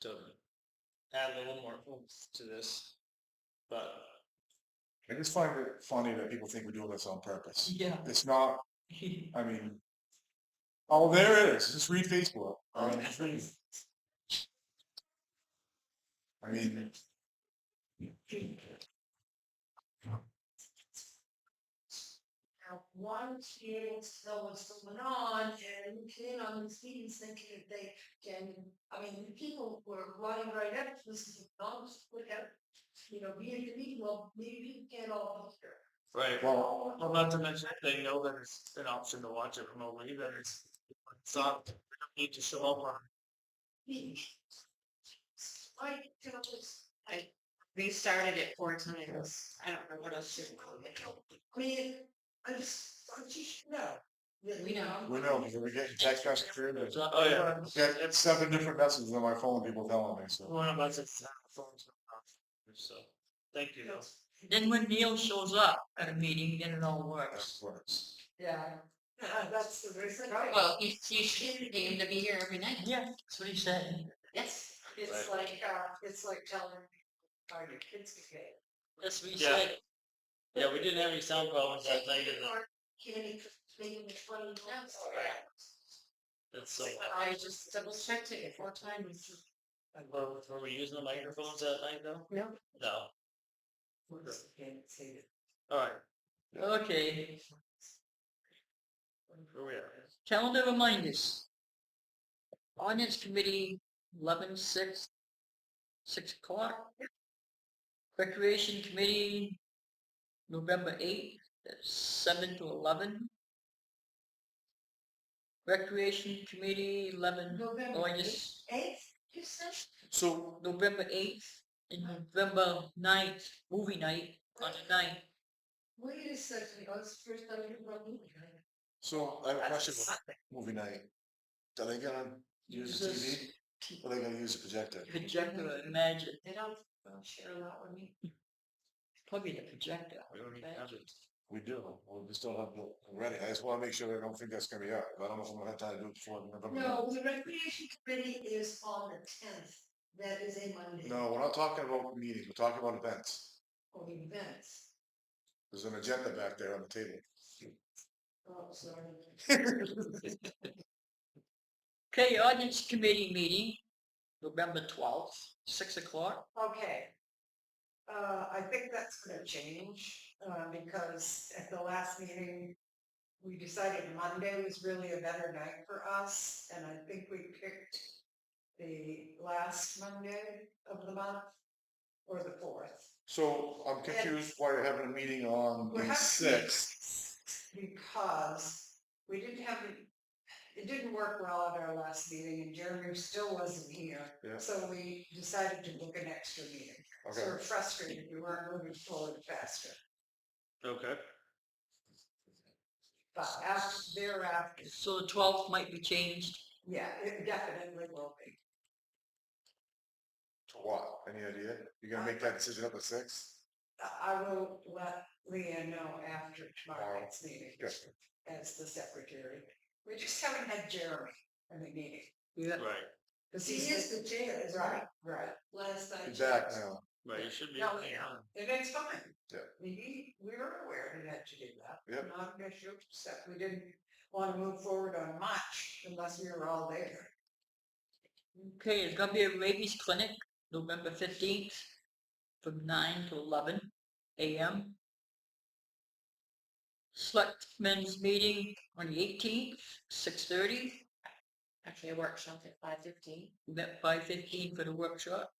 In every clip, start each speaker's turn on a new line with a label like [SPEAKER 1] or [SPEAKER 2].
[SPEAKER 1] to add a little more oomph to this. But
[SPEAKER 2] I just find it funny that people think we're doing this on purpose.
[SPEAKER 1] yeah,
[SPEAKER 2] It's not, I mean, oh, there it is. Just read Facebook. I mean, I mean,
[SPEAKER 3] Now, one student still was going on and looking in on the students thinking that they can, I mean, the people were running right up to this is not put out, you know, be in the meeting, well, maybe we can get all here.
[SPEAKER 1] right.
[SPEAKER 2] well,
[SPEAKER 1] Well, not to mention if they know that it's an option to watch it remotely, then it's, it's not, they don't need to show up on.
[SPEAKER 3] Like, you know, it's-
[SPEAKER 4] They started it four times. I don't know what else to.
[SPEAKER 3] I mean, I just, I just know. that-
[SPEAKER 4] We know.
[SPEAKER 2] we know because we're getting text messages.
[SPEAKER 1] Oh, yeah.
[SPEAKER 2] I've got seven different messages on my phone, people telling me, so.
[SPEAKER 1] One of us is, uh, phones are off, so, thank you.
[SPEAKER 3] Yes.
[SPEAKER 5] Then when Neil shows up at a meeting, then it all works.
[SPEAKER 2] that's what it's-
[SPEAKER 3] Yeah. Uh, That's the reason. Right.
[SPEAKER 4] Well, he, he should be able to be here every night.
[SPEAKER 5] Yeah, that's what he said.
[SPEAKER 4] Yes.
[SPEAKER 3] It's like, uh, it's like telling, are your kids okay?
[SPEAKER 5] That's what he
[SPEAKER 1] Yeah.
[SPEAKER 5] said.
[SPEAKER 1] Yeah, we didn't have any sound problems that night, and
[SPEAKER 5] Oh,
[SPEAKER 1] that's so,
[SPEAKER 4] I just double checked it four times.
[SPEAKER 1] were, were we using the microphones that night though?
[SPEAKER 4] No.
[SPEAKER 1] No, alright,
[SPEAKER 5] Okay,
[SPEAKER 1] here we are.
[SPEAKER 5] calendar reminders. Audience committee, eleven six, six o'clock. Recreation committee, November eighth, that's seven to eleven. Recreation committee, eleven, oh,
[SPEAKER 3] November
[SPEAKER 5] I just
[SPEAKER 3] eighth, you said?
[SPEAKER 2] So,
[SPEAKER 5] November eighth and November 9th, movie night on the ninth.
[SPEAKER 3] Wait a second, I was first time you were moving.
[SPEAKER 2] so I have a question about movie night. Are they gonna use the TV? Or are they gonna use the projector?
[SPEAKER 5] Projector, I imagine,
[SPEAKER 4] They don't share a lot with me.
[SPEAKER 5] probably the projector.
[SPEAKER 1] We don't even have it.
[SPEAKER 2] We do, we just don't have it ready. I just wanna make sure I don't think that's gonna be out. I don't know if I'm gonna have time to do it before November.
[SPEAKER 3] No, the recreation committee is on the tenth, that is a Monday.
[SPEAKER 2] No, we're not talking about meetings, we're talking about events.
[SPEAKER 3] Or events,
[SPEAKER 2] There's an agenda back there on the table.
[SPEAKER 3] oh, sorry.
[SPEAKER 5] Okay, audience committee meeting, November twelfth, six o'clock.
[SPEAKER 3] Okay. Uh, I think that's gonna change, uh, because at the last meeting, we decided Monday was really a better night for us, and I think we picked the last Monday of the month, or the fourth.
[SPEAKER 2] So I'm confused why you're having a meeting on
[SPEAKER 3] We're
[SPEAKER 2] the
[SPEAKER 3] having
[SPEAKER 2] sixth.
[SPEAKER 3] Because we didn't have, the- it didn't work well at our last meeting, and Jeremy still wasn't here,
[SPEAKER 2] Yeah.
[SPEAKER 3] so we decided to book an extra meeting. So
[SPEAKER 2] Okay,
[SPEAKER 3] We're frustrated, we weren't moving forward faster.
[SPEAKER 1] Okay.
[SPEAKER 3] But after, thereafter,
[SPEAKER 5] So the twelfth might be changed.
[SPEAKER 3] yeah, it definitely will be.
[SPEAKER 2] to what? Any idea? You're gonna make that decision at the sixth?
[SPEAKER 3] Uh, I- I will let Leah know after tomorrow night's meeting
[SPEAKER 2] Good.
[SPEAKER 3] as the secretary. We just haven't had Jeremy in the meeting.
[SPEAKER 5] Yeah.
[SPEAKER 1] Right,
[SPEAKER 3] Because he is the chair, is right, right. Last
[SPEAKER 2] Be back now.
[SPEAKER 1] right, you should be.
[SPEAKER 3] No,
[SPEAKER 1] okay,
[SPEAKER 3] yeah.
[SPEAKER 1] huh?
[SPEAKER 3] And it's fine.
[SPEAKER 2] Yeah.
[SPEAKER 3] We, we were aware he had to do that.
[SPEAKER 2] Yep.
[SPEAKER 3] Not an issue, except we didn't want to move forward on much unless we were all there.
[SPEAKER 5] Okay, it's gonna be a rabies clinic, November fifteenth, from nine to eleven AM. Selectmen's meeting on the eighteenth, six thirty.
[SPEAKER 4] Actually, a workshop at five fifteen.
[SPEAKER 5] We met five fifteen for the workshop.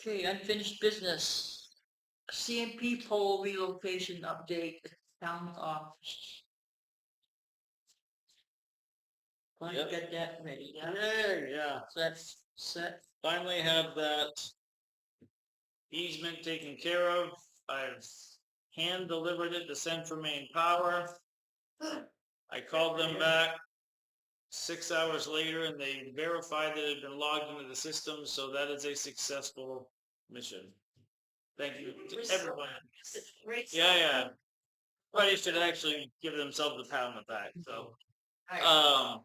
[SPEAKER 5] Okay, unfinished business. CMP poll relocation update, town office. Want to
[SPEAKER 1] Yep.
[SPEAKER 5] get that ready, yeah?
[SPEAKER 1] Yay, yeah.
[SPEAKER 5] So that's set.
[SPEAKER 1] finally have that easement taken care of. I've hand delivered it to Central Maine Power. I called them back six hours later and they verified that it had been logged into the system, so that is a successful mission. Thank you to everyone. Yeah, yeah. Everybody should actually give themselves a pat on the back, so. Um,